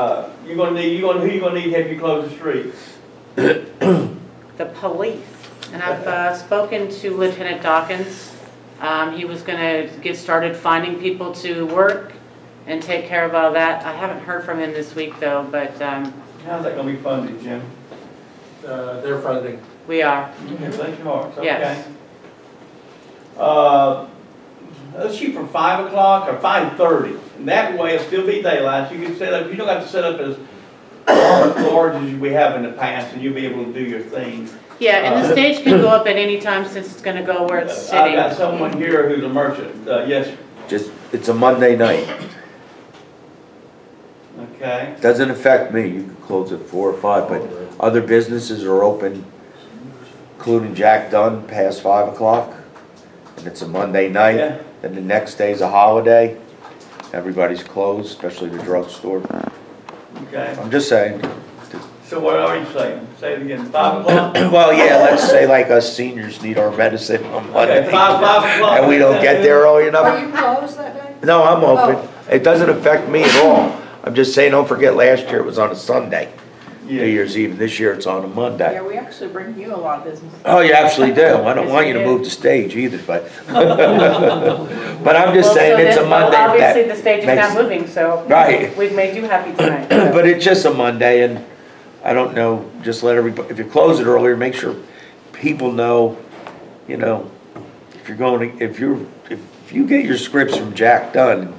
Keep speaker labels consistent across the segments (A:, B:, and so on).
A: Uh, you're gonna need, you're gonna, who you gonna need to help you close the street?
B: the police. And I've uh, spoken to Lieutenant Dawkins. Um, He was going to get started finding people to work and take care of all that. I haven't heard from him this week, though, but um,
A: How's that gonna be funded, Jim?
C: Uh, Their funding.
B: we are.
A: Okay, bless your hearts, okay.
B: Yes.
A: Uh, let's shoot for five o'clock or five thirty, and that way it'll still be daylight, you can set up, you don't have to set up as large as we have in the past, and you'll be able to do your thing.
B: Yeah, and
D: Uh,
B: the stage can go up at any time since it's going to go where it's
A: I've
B: sitting.
A: got someone here who's a merchant, uh, yes, sir.
D: Just, it's a Monday night.
A: okay,
D: Doesn't affect me. You can close at four or five, but other businesses are open, including Jack Dunn past five o'clock. And it's a Monday
A: Yeah.
D: night, then the next day's a holiday. Everybody's closed, especially the drugstore.
A: okay.
D: I'm just saying.
A: So what are you saying? Say it again, five o'clock?
D: Well, yeah, let's say like us seniors need our medicine on
A: Okay,
D: Monday.
A: five, five o'clock.
D: And we don't get there early
E: Are
D: enough.
E: you Oh. closed that day?
D: No, I'm open. It doesn't affect me at all. I'm just saying, don't forget last year it was on a Sunday, New
A: Yeah,
D: Year's Eve. This year it's on a Monday.
F: Yeah, we actually bring you a lot of business.
D: Oh, you absolutely do. I don't
B: Yes,
D: want
B: you
D: you to
B: do.
D: move the stage either, but, but I'm just
B: Well, so
D: saying it's a
B: then-
D: Monday.
B: well,
D: that-
B: Obviously, the stage is
D: makes-
B: not moving, so.
D: Right.
B: We've made you happy tonight. so.
D: But it's just a Monday and I don't know, just let everybody, if you close it earlier, make sure people know, you know, if you're going, to if you're, if you get your scripts from Jack Dunn,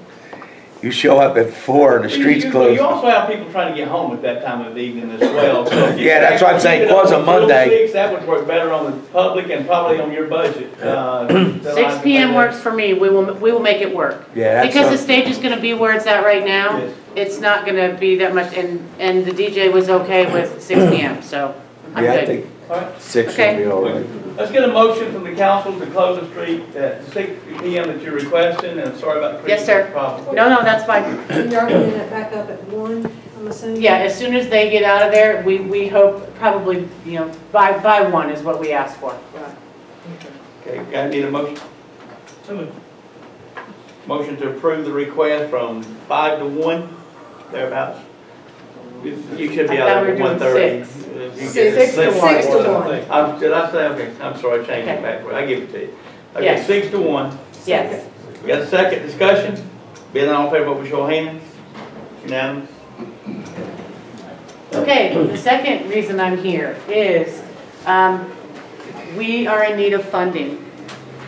D: you show up at four and the street's
A: You- you-
D: closed.
A: You also have people trying to get home at that time of the evening as well, so. if you-
D: Yeah, that's what I'm saying,
A: if you could
D: close on
A: open till
D: Monday.
A: six, That would work better on the public and probably on your budget. uh, than I
B: Six
A: can
B: PM
A: do.
B: works for me. We will, we will make it work.
D: Yeah, that's
B: Because the
D: a-
B: stage is gonna be where it's at right now.
A: Yes.
B: It's not gonna be that much, and, and the DJ was okay with six PM, so I'm
D: Yeah, I
B: good.
D: think
A: All right,
D: six
B: Okay.
D: would be all right.
A: Let's get a motion from the council to close the street at six P M that you're requesting, and sorry about the
B: Yes, sir.
A: problem.
B: No, no, that's fine.
E: And You're opening it back up at one, I'm assuming?
B: Yeah, as soon as they get out of there, we, we hope probably, you know, by, by one is what we ask for.
A: Okay, I need a motion. Motion to approve the request from five to one, thereabouts. You you should be
B: I thought
A: out there at
B: we were doing
A: one thirty.
B: six.
E: Six to one. Six to one.
A: I'm, did I say, okay, I'm sorry, change it
B: Okay.
A: backward, I give it to you. Okay,
B: Yes.
A: six to one.
B: Yes.
A: We got a second discussion? Being all in favor, vote with your hands. Unanimous?
B: Okay, the second reason I'm here is, um, we are in need of funding.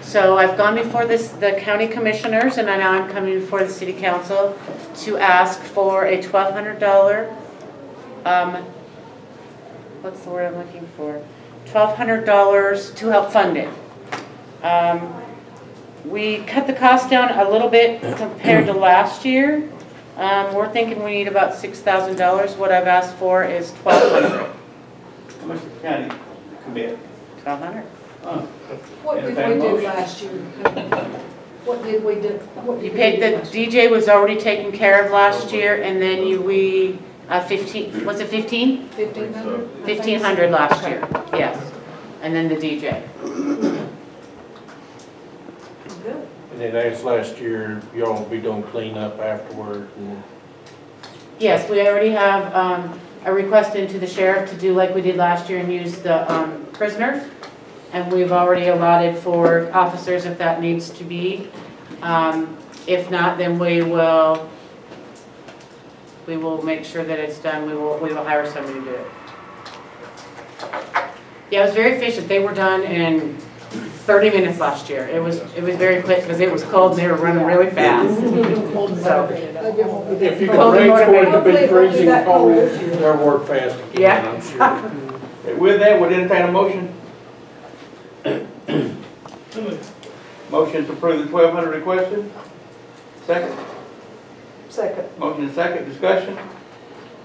B: So I've gone before this, the county commissioners, and now I'm coming before the city council to ask for a twelve hundred dollar, um, what's the word I'm looking for? Twelve hundred dollars to help fund it. Um, we cut the cost down a little bit compared to last year. Um, we're thinking we need about six thousand dollars. What I've asked for is twelve hundred.
A: How much the county commit?
B: Twelve hundred.
A: Uh,
E: What did we do last year? What did we do? what did
B: You
E: we
B: paid,
E: do
B: the
E: last year?
B: DJ was already taken care of last year, and then you, we, uh, fifteen, was it fifteen?
E: 1,500? I think
B: Fifteen hundred
E: so.
B: last
E: Okay.
B: year, yes. And then the DJ.
E: Good.
C: And then as last year, y'all will be doing cleanup afterward and
B: Yes, we already have, um, a request into the sheriff to do like we did last year and use the, um, prisoners. And we've already allotted for officers if that needs to be. Um, if not, then we will, we will make sure that it's done, we will, we will hire somebody to do it. Yeah, it was very efficient, they were done in thirty minutes last year, it was, it was very quick, because it was cold and they were running really fast. So,
E: Maybe it won't be that
C: if you
E: cold.
C: can raise toward the big freezing
E: Hopefully
C: cold,
E: it won't be that
C: they'll work fast again,
B: Yeah.
C: I'm sure.
A: With that, would entertain a motion? Motion to approve the twelve hundred requested? Second?
E: Second.
A: Motion is second, discussion.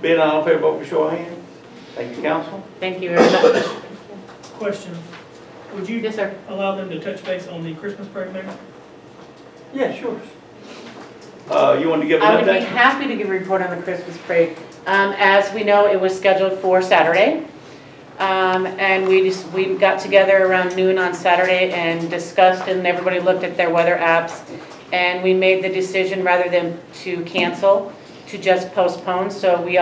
A: Being all in favor, vote by show of hands. Thank you, council.
B: thank you very much.
G: Question, would you
B: Yes, sir.
G: allow them to touch base on the Christmas parade, Mayor?
A: Yeah, sure. Uh, you want to give
B: I
A: an
B: would be
A: update?
B: happy to give a report on the Christmas parade. Um, As we know, it was scheduled for Saturday. Um, And we just, we got together around noon on Saturday and discussed, and everybody looked at their weather apps. And we made the decision, rather than to cancel, to just postpone. So we